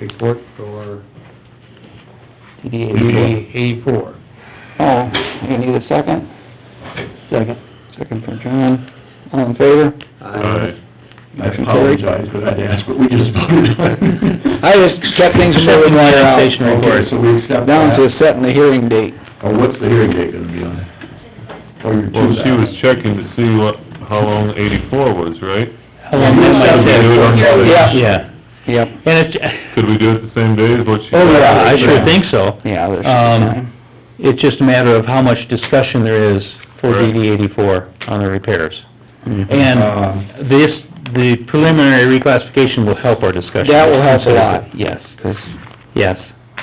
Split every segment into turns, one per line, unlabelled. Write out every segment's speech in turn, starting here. report for
DD
DD eighty-four.
Oh, you need a second? Second. Second from John, all in favor?
Uh,
Uh, I apologize, but I'd ask what we just voted on.
I just kept things moving while you're out.
Station report. So we accept
Down
that.
to setting the hearing date.
Oh, what's the hearing date gonna be on it? Oh, you're
Well, she was
two.
checking to see what, how long eighty-four was, right?
Yeah.
Yeah,
Yep,
and it's,
Could we do it the same day as what she?
oh, yeah, I sure think so.
yeah, there's
Um,
time.
It's just a matter of how much discussion there is for
Correct.
DD eighty-four on the repairs.
Mhm.
Um,
And this, the preliminary reclassification will help our discussion.
That will help a lot, yes, 'cause
Yes.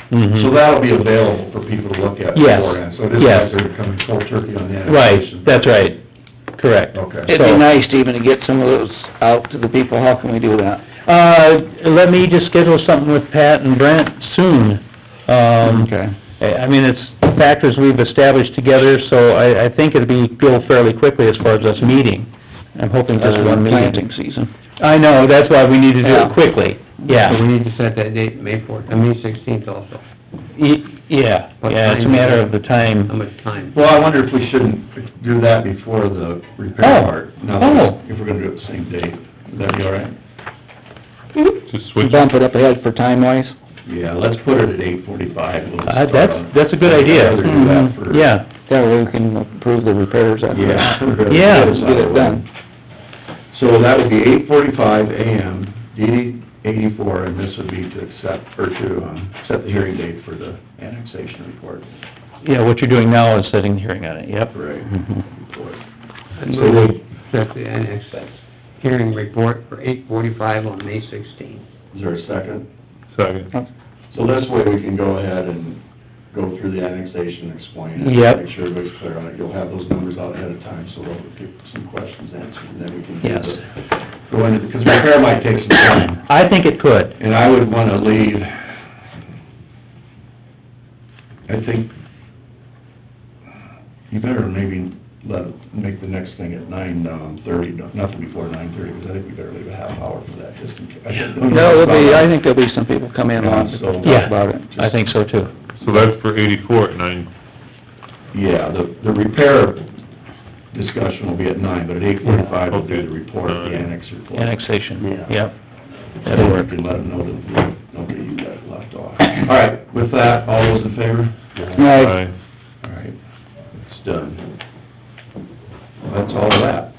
So
Mhm.
that'll be available for people to look at
Yes,
beforehand, so it isn't
yes.
like they're coming full turkey on the
Right,
annexation.
that's right, correct.
Okay.
it'd be
So-
nice to even to get some of those out to the people, how can we do that?
Uh, let me just schedule something with Pat and Brent soon. Um, I I mean, it's factors we've established together, so I, I think it'll be, go fairly quickly as far as us meeting. I'm hoping just
Other than
one meeting.
Uh, planting season.
I know, that's why we need to do
Yeah.
it quickly,
So
yeah.
we need to set that date, May fourth, I mean sixteenth also,
Y- Yeah,
What
yeah, it's a
time?
matter of the time.
how much time?
Well, I wonder if we shouldn't do that before the
Oh.
repair part, no,
Oh.
if we're gonna do it the same day. Would that be all right?
Just switch, it.
Bump it up ahead for time wise.
Yeah, let's put it at eight forty-five.
Uh, that's, that's a good idea. Mm-hmm.
I'd rather do that for...
Yeah,
That way we can approve the repairs after that.
Yeah. for-
Yeah.
Get it done.
So that would be eight forty-five AM, DD eighty-four, and this would be to accept, or to, um, set the hearing date for the annexation report.
yeah, what you're doing now is setting the hearing on it, yep.
Right.
Mm-hmm.
Report.
I move we set the annex hearing report for eight forty-five on May sixteenth.
Is there a second?
second.
So this way we can go ahead and go through the annexation, explain it.
Yep.
Make sure everybody's clear on it. You'll have those numbers out ahead of time, so they'll get some questions answered, and then we can do
Yes.
the, go into, because repair might take some time.
I think it could,
And I would wanna leave, I think, you better maybe let, make the next thing at nine, um, thirty, no- nothing before nine thirty, because I think we better leave a half hour for that, just in case.
No, it'll be, I think there'll be some people come in on,
So-
talk about it.
I think so too.
So that's for eighty-four at nine.
Yeah, the, the repair discussion will be at nine, but at eight forty-five, we'll do the report, the annex report.
Annexation,
Yeah.
yep.
That'll work. And let them know that, nobody you got left off. All right, with that, all those in favor?
Right,
Aye.
All right, it's done. That's all that.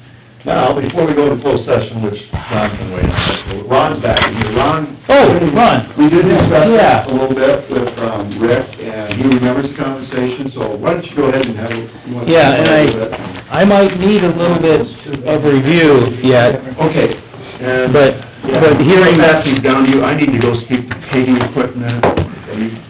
Now, before we go into closed session, which Ron can wait on, Ron's back, and Ron...
Oh, Ron.
We did discuss
Yeah.
that a little bit with um, Rick, and he remembers the conversation, so why don't you go ahead and have it... you want to-
Yeah, and I, I might need a little bit of review yet,
Okay, and...
but, but hearing
that
that,
thing down to you, I need to go speak to paving equipment, and you-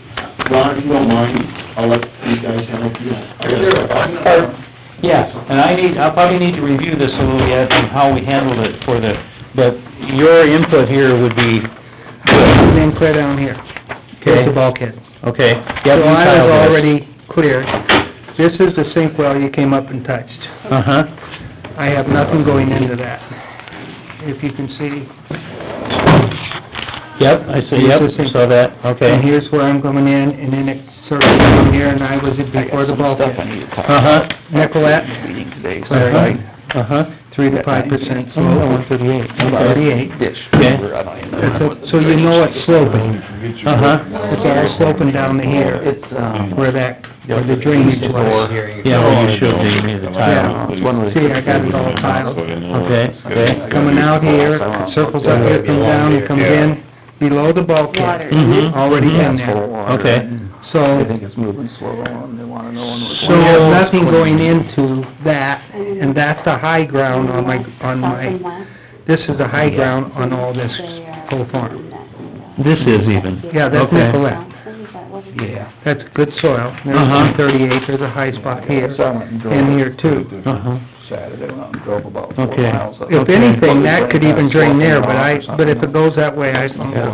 Ron, if you don't mind, I'll let you guys handle it.
Or- yeah, and I need, I probably need to review this a little yet and how we handled it for the, but your input here would be,
and then clear down here, here's the
okay,
bulkhead.
okay.
So
yeah, you
I
filed
was
this.
already cleared. This is the sink well you came up and touched.
Uh-huh,
I have nothing going into that. If you can see,
yep, I see, yep, saw that, okay.
and here's where I'm going in, and then it circles down here, and I was before
stuff
the
I
bulkhead.
need to talk about.
Uh-huh,
Nicolette,
Meeting today, so
Clary,
uh-huh,
three to five percent
Oh, no,
slope.
thirty-eight.
Thirty-eight.
dish,
Okay.
whatever, I don't even
That's
know.
a- So you know it's sloping.
Uh-huh,
It's all sloping down to here,
It's, um,
where that, where the drainage was.
yeah, well, you showed me the tile,
it's one of the-
See, I got it all tiled.
okay, okay.
Coming out here, it circles up here, comes down, it comes in below the bulkhead. Mm-hmm.
Mhm.
Already in
Full
there.
of Mm-hmm. water,
Okay.
and
So,
They think it's moving slow, and they wanna know when we're...
so there's nothing going into that, and that's the high ground on my, on my, this is the high ground on all this
uh,
whole farm.
This is even.
Yeah, that's
Okay.
Nicolette.
Yeah.
That's good soil.
Uh-huh.
There's thirty acres, a high spot here, and
In
here too.
Uh-huh,
Saturday, went out and drove about four
Okay.
miles. up-
If anything, that could even drain there, but I, but if it goes that way, I,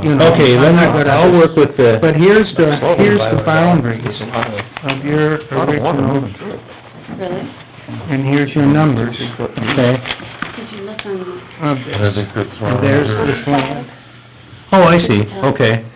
you know.
okay,
I'm
then
not gonna-
I'll work with the,
But here's the, here's the boundaries of your original,
Really?
and here's your numbers
okay,
Did you look on
of this. And there's the swamp,
oh, I see, okay,